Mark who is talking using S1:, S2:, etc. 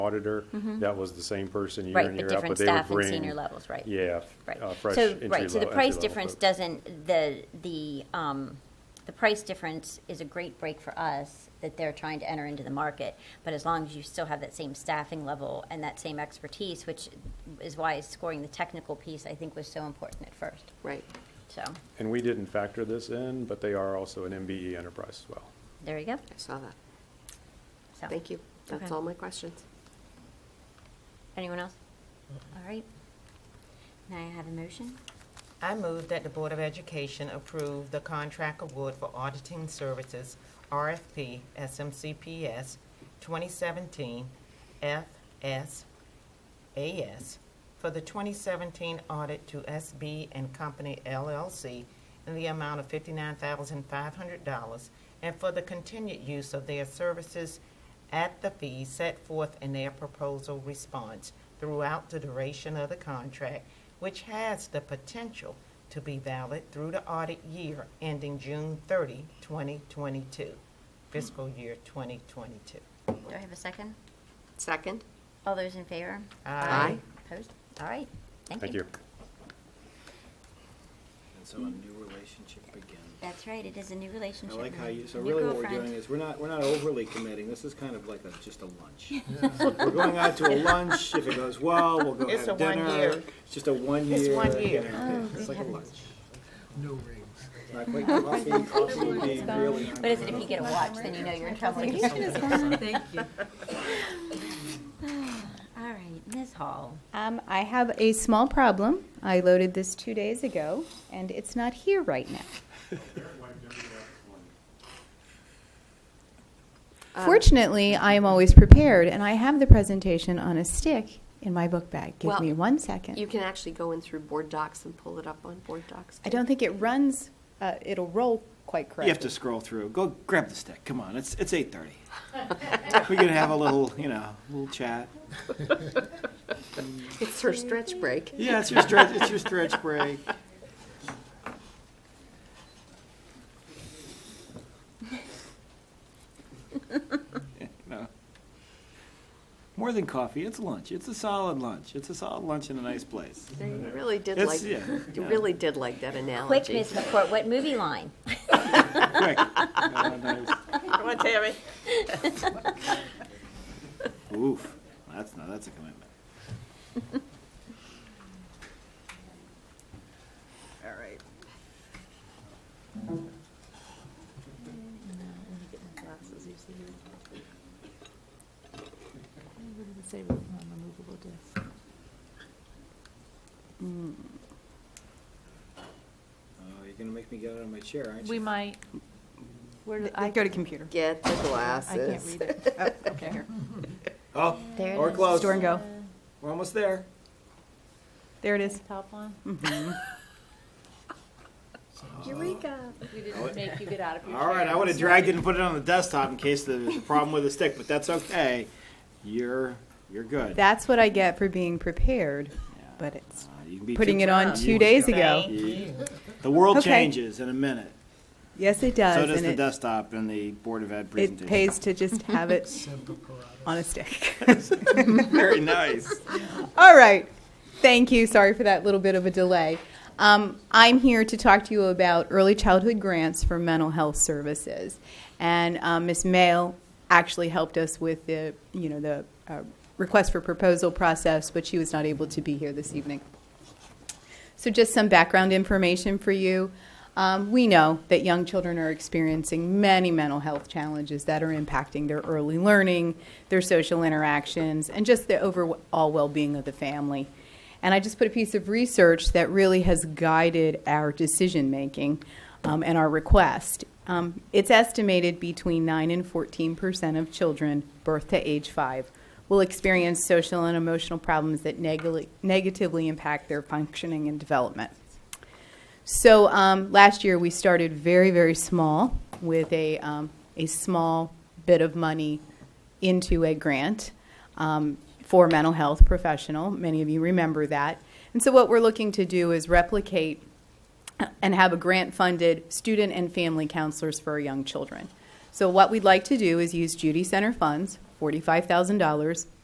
S1: auditor, that was the same person year
S2: Mm-hmm. Right,
S1: in,
S2: but
S1: year out, but
S2: different
S1: they would
S2: staff and
S1: bring.
S2: senior levels, right.
S1: Yeah.
S2: Right.
S1: uh, fresh
S2: So,
S1: entry
S2: right, so the
S1: level- entry
S2: price
S1: level
S2: difference
S1: folks.
S2: doesn't, the, the, um, the price difference is a great break for us that they're trying to enter into the market. But as long as you still have that same staffing level and that same expertise, which is why scoring the technical piece, I think, was so important at first,
S3: Right.
S2: so,
S1: And we didn't factor this in, but they are also an MBE enterprise as well.
S2: there you go.
S3: I saw that.
S2: So,
S3: Thank you. That's
S2: Okay.
S3: all my questions.
S2: Anyone else? All right. Now I have a motion.
S4: I move that the Board of Education approve the contract award for auditing services, RFP SMCPS 2017 FSAS, for the 2017 audit to SB and Company LLC in the amount of $59,500 and for the continued use of their services at the fee set forth in their proposal response throughout the duration of the contract, which has the potential to be valid through the audit year ending June 30, 2022, fiscal year 2022.
S2: Do I have a second?
S3: Second?
S2: All those in favor?
S3: Aye.
S2: Opposed? All right, thank you.
S1: Thank you.
S5: And so a new relationship begins.
S2: That's right, it is a new
S5: I
S2: relationship.
S5: like how
S2: now.
S5: you, so
S2: New
S5: really what we're
S2: girlfriend.
S5: doing is, we're not, we're not overly committing, this is kind of like a, just a lunch. We're going out to a lunch, if it goes well, we'll go
S4: It's
S5: have
S4: a one
S5: dinner.
S4: year.
S5: It's just a one year.
S4: It's one year. Oh,
S5: you know, It's like a lunch.
S6: No rings.
S5: Not quite coffee, coffee would be really.
S2: But is it if you get a watch, then you know you're in trouble?
S3: Thank you.
S2: All right, Ms. Hall.
S7: Um, I have a small problem. I loaded this two days ago, and it's not here right now.
S3: Um, Ah.
S7: Fortunately, I am always prepared, and I have the presentation on a stick in my book bag. Give
S3: Well,
S7: me one second.
S3: You can actually go in through Board Docs and pull it up on Board Docs.
S7: I
S3: too.
S7: don't think it runs. Uh, it'll roll quite correctly.
S5: You have to scroll through, go grab the stick, come on, it's, it's eight thirty. We could have a little, you know, little chat.
S3: It's her stretch break.
S5: Yeah, it's your stretch, it's your stretch break. No. More than coffee, it's lunch. It's a solid lunch. It's a solid lunch in a nice place.
S3: They really did
S5: It's-
S3: like,
S5: yeah,
S3: you
S5: yeah.
S3: really did like that
S2: Quick,
S3: analogy.
S2: Ms. McCourt, what movie line?
S5: Quick. Uh, nice.
S4: Come on, Terry.
S5: Oof, that's not, that's a commitment.
S3: All right. Glasses, you see here. What does it say on the movable disc?
S5: Oh, you're gonna make me get out of my chair, aren't
S8: We
S5: you?
S8: might. Where do I,
S7: go to computer.
S3: Get the
S8: I can't
S3: glasses.
S8: read it. Oh, okay. Here.
S5: Oh,
S2: There it
S5: or
S2: is.
S5: close.
S7: Store and go.
S5: We're almost there.
S7: There it is.
S8: Top one.
S3: Eureka.
S8: We didn't make you get out of your
S5: All right,
S8: chair.
S5: I would have dragged it and put it on the desktop in case there was a problem with the stick, but that's okay. You're, you're good.
S7: That's what I get for being prepared, but it's
S5: Uh, you can be
S7: putting
S5: too-
S7: it on
S5: you-
S7: two days ago.
S5: The world
S7: Okay.
S5: changes in a minute.
S7: Yes, it does.
S5: So does
S7: and
S5: the
S7: it-
S5: desktop and the Board of Ed
S7: It
S5: presentation.
S7: pays to just have it on a stick.
S5: Very nice.
S7: All right. Thank you. Sorry for that little bit of a delay. Um, I'm here to talk to you about early childhood grants for mental health services, and um, Ms. Mail actually helped us with the, you know, the uh, request for proposal process, but she was not able to be here this evening. So, just some background information for you. Um, we know that young children are experiencing many mental health challenges that are impacting their early learning, their social interactions, and just the overall well being of the family. And I just put a piece of research that really has guided our decision making um, and our request. Um, it's estimated between 9 and 14 percent of children birth to age 5 will experience social and emotional problems that neg- negatively impact their functioning and development. So um, last year we started very, very small with a, um, a small bit of money into a grant um, for mental health professional. Many of you remember that. And so what we're looking to do is replicate and have a grant funded student and family counselors for our young children. So, what we'd like to do is use Judy Center funds, $45,000,